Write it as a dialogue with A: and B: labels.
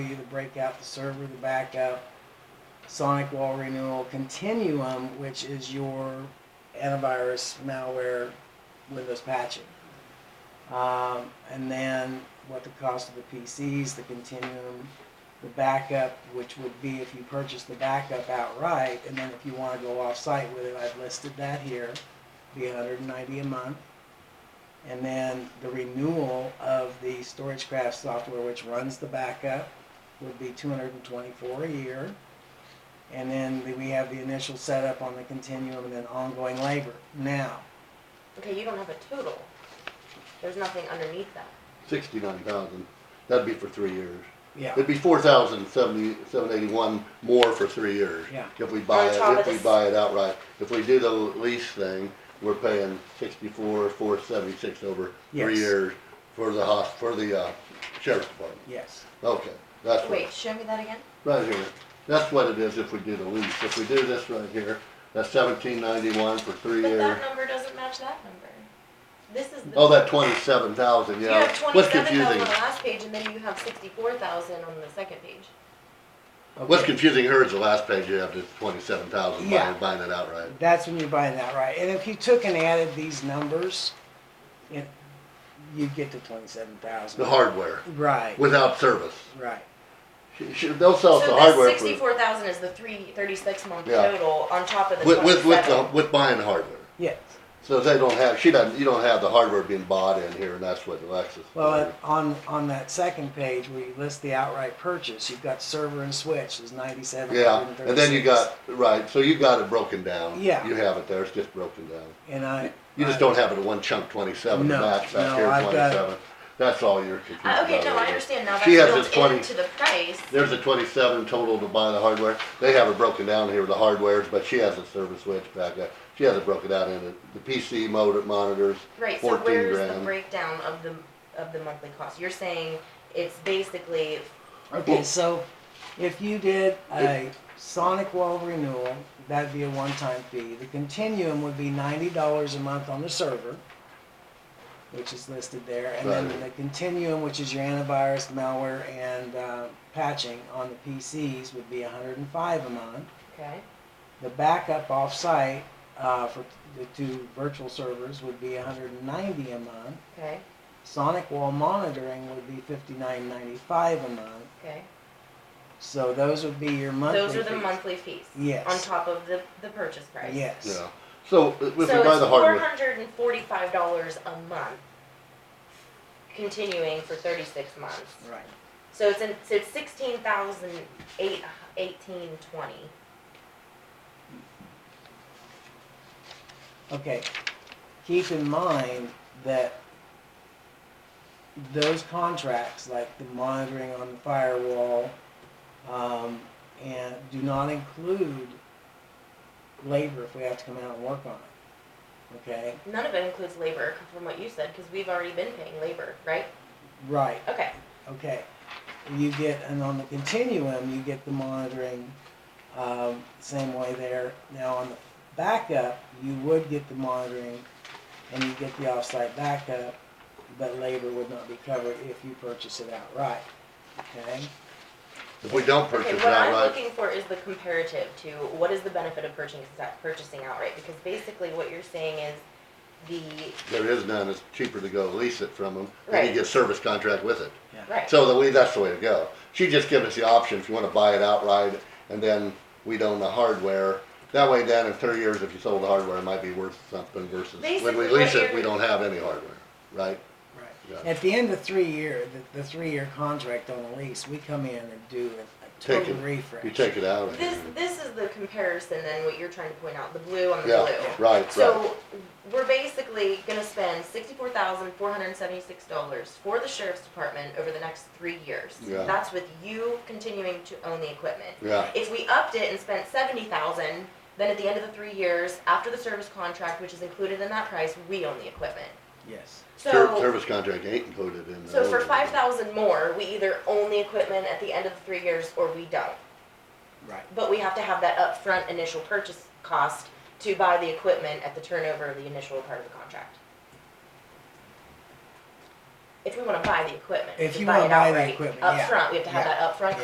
A: either break out the server, the backup, sonic wall renewal, continuum, which is your antivirus, malware, Windows patching. Um, and then what the cost of the PCs, the continuum, the backup, which would be if you purchase the backup outright, and then if you want to go off-site with it, I've listed that here, be 190 a month. And then the renewal of the StorageCraft software, which runs the backup, would be 224 a year. And then the- we have the initial setup on the continuum and then ongoing labor. Now,
B: Okay, you don't have a total. There's nothing underneath that.
C: Sixty-nine thousand, that'd be for three years.
A: yeah,
C: It'd be four thousand seventy, seven eighty-one more for three years.
A: Yeah.
C: If we buy it,
B: top of
C: if we
B: this-
C: buy it outright. If we do the lease thing, we're paying sixty-four, four seventy-six over three
A: Yes.
C: years for the hos, for the, uh, sheriff's department.
A: yes.
C: Okay, that's what,
B: Wait, show me that again.
C: right here. That's what it is if we do the lease. If we do this right here, that's seventeen ninety-one for three
B: But
C: years.
B: that number doesn't match that number. This is the.
C: Oh, that twenty-seven thousand,
B: You
C: yeah.
B: have
C: What's
B: twenty-seven thousand on
C: confusing?
B: the last page and then you have sixty-four thousand on the second page.
C: What's
A: Okay.
C: confusing here is the last page, you have this twenty-seven thousand,
A: Yeah.
C: buying, buying it outright.
A: That's when you're buying that, right? And if you took and added these numbers, it, you'd get to 27,000.
C: The hardware,
A: Right,
C: without service.
A: right.
C: She- she- They'll sell us the
B: So
C: Oh, hardware
B: this
C: for,
B: sixty-four thousand is the three thirty-six month
C: Yeah.
B: total on top of the
C: with, with, with, the,
B: twenty-seven.
C: with buying the hardware.
A: Yes.
C: So they don't have, she doesn't, you don't have the hardware being bought in here, and that's what Alexis.
A: Well, it- on, on that second page where you list the outright purchase, you've got server and switch is 97.
C: Yeah, and then you got, right, so you got it broken down.
A: Yeah.
C: You have it there, it's just broken down.
A: And I.
C: You just don't have it in one chunk twenty-seven,
A: No,
C: and that's back
A: no,
C: here
A: I've got-
C: twenty-seven. That's all you're confused
B: Uh,
C: about.
B: okay, no, I
C: right here.
B: understand now. That's
C: She has this
B: built
C: 20
B: into the price.
C: There's a twenty-seven total to buy the hardware. They have it broken down here, the hardwares, but she has a service switch back there. She has it broken out in it. The PC motor monitors,
B: Right, so
C: fourteen
B: where's the
C: grand.
B: breakdown of the, of the monthly cost? You're saying it's basically,
A: Okay, so if you did a Sonic Wall renewal, that'd be a one-time fee. The continuum would be ninety dollars a month on the server, which is listed there, and then
C: Right.
A: the continuum, which is your antivirus, malware, and uh, patching on the PCs, would be hundred and five a month.
B: okay,
A: The backup off-site uh, for the two virtual servers would be hundred and ninety a month.
B: okay,
A: Sonic Wall monitoring would be fifty-nine ninety-five a month.
B: okay.
A: So those would be your monthly.
B: Those are the
A: fees.
B: monthly fees.
A: Yes.
B: On top of the, the purchase price.
A: Yes.
C: Yeah. So uh, if we
B: So
C: buy the
B: it's four
C: hardware,
B: hundred and forty-five dollars a month, continuing for thirty-six months.
A: Right.
B: So it's in, so it's sixteen thousand eight, eighteen twenty.
A: Okay. Keep in mind that those contracts, like the monitoring on the firewall, um, and do not include labor if we have to come out and work on it. Okay.
B: None of it includes labor from what you said, cause we've already been paying labor, right?
A: Right.
B: Okay,
A: Okay. You get, and on the continuum, you get the monitoring, um, same way there. Now, on the backup, you would get the monitoring and you get the offsite backup, but labor would not be covered if you purchase it outright, okay?
C: if we don't
B: okay,
C: purchase it
B: what I'm
C: outright,
B: looking for is the comparative to what is the benefit of purchasing, purchasing outright, because basically what you're saying is the,
C: there is none, it's cheaper to go lease it from them. Then
B: Right.
C: you get service contract with it.
B: right.
C: So the way, that's the way to go. She just gives us the option if you wanna buy it outright and then we'd own the hardware. That way then in thirty years, if you sold the hardware, it might be worth something versus when
B: Basically,
C: we lease
B: what
C: it,
B: you're-
C: we don't have any hardware, right? Yeah.
A: Right. At the end of three year, the, the three-year contract on the lease, we come in and do a- a
C: Take
A: total
C: it.
A: refresh.
C: You take it out. and-
B: This, this is the comparison then, what you're trying to point out, the blue on the
C: Yeah,
B: blue.
C: right, right.
B: So we're basically gonna spend sixty-four thousand four hundred and seventy-six dollars for the sheriff's department over the next three years.
C: Yeah.
B: That's with you continuing to own the equipment.
C: Yeah,
B: If we upped it and spent seventy thousand, then at the end of the three years, after the service contract, which is included in that price, we own the equipment.
A: Yes.
C: Ser-
B: So,
C: service contract ain't included in the.
B: so for
C: other one.
B: five thousand more, we either own the equipment at the end of the three years or we don't.
A: Right.
B: But we have to have that upfront initial purchase cost to buy the equipment at the turnover of the initial part of the contract. if we wanna buy the equipment,
A: If
B: to
A: you
B: buy
A: wanna
B: it
A: buy the
B: outright,
A: equipment, yeah,
B: upfront, we have to have
A: yeah,
B: that upfront